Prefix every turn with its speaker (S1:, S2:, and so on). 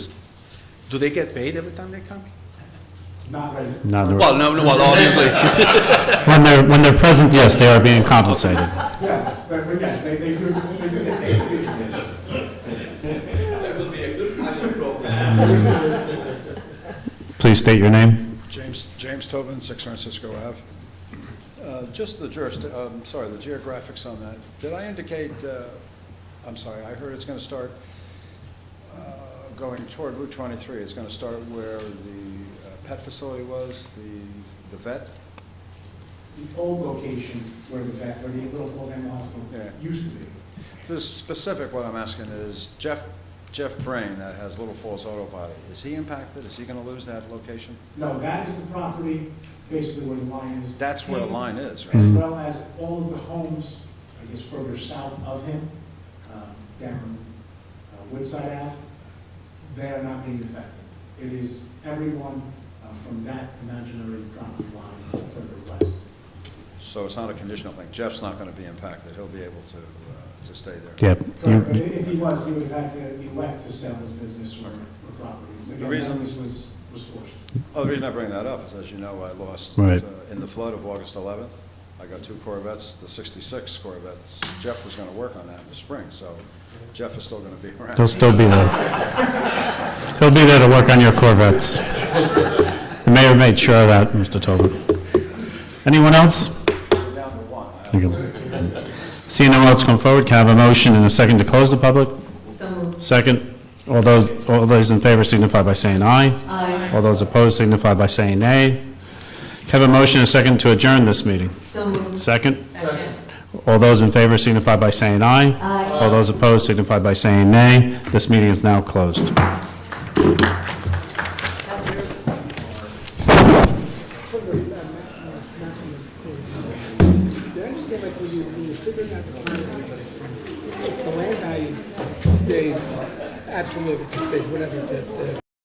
S1: Do they get paid every time they come?
S2: Not ready.
S3: No, they're-
S1: Well, no, no, well, obviously,
S3: when they're, when they're present, yes, they are being compensated.
S2: Yes, but, but yes, they, they do, they do get paid.
S3: Please state your name.
S4: James, James Tobin, 6 Francisco Ave. Uh, Just the juris, um sorry, the geographics on that. Did I indicate, uh, I'm sorry, I heard it's going to start uh, going toward Route 23. It's going to start where the uh, pet facility was, the the vet?
S2: The old location where the vet, where the little Falls Animal Hospital
S4: Yeah.
S2: used to be.
S4: The specific, what I'm asking is Jeff, Jeff Brain that has Little Falls Auto Body, is he impacted? Is he going to lose that location?
S2: No, that is the property, basically where the line is.
S4: That's where the line is, right?
S2: As well as all of the homes, I guess further south of him, um, down uh, Woodside Ave, they are not being affected. It is everyone uh, from that imaginary property line further west.
S4: So it's not a conditional thing. Jeff's not going to be impacted. He'll be able to, uh, to stay there.
S3: Yep.
S2: Correct, but i- if he was, he would have had to elect to sell his business or or property. Again,
S4: reason-
S2: this was, was forced.
S4: Well, the reason I bring that up is, as you know, I lost, uh,
S3: Right.
S4: in the flood of August 11th, I got two Corvettes, the 66 Corvettes. Jeff was going to work on that in the spring, so Jeff is still going to be around.
S3: They'll still be there. They'll be there to work on your Corvettes. The mayor made sure of that, Mr. Tobin. Anyone else?
S4: Down to one. I-
S3: Thank you. Seeing no one else come forward, can I have a motion and a second to close the public?
S5: So moved.
S3: Second, all those, all those in favor signify by saying aye.
S5: Aye.
S3: All those opposed signify by saying nay. Can I have a motion and a second to adjourn this meeting?
S5: So moved.
S3: Second,
S5: Second.
S3: all those in favor signify by saying aye.
S5: Aye.
S3: All those opposed signify by saying nay. This meeting is now closed.
S6: Did I understand like when you, when you're figuring out the plan, it's the land value stays absolute, it stays whatever the, the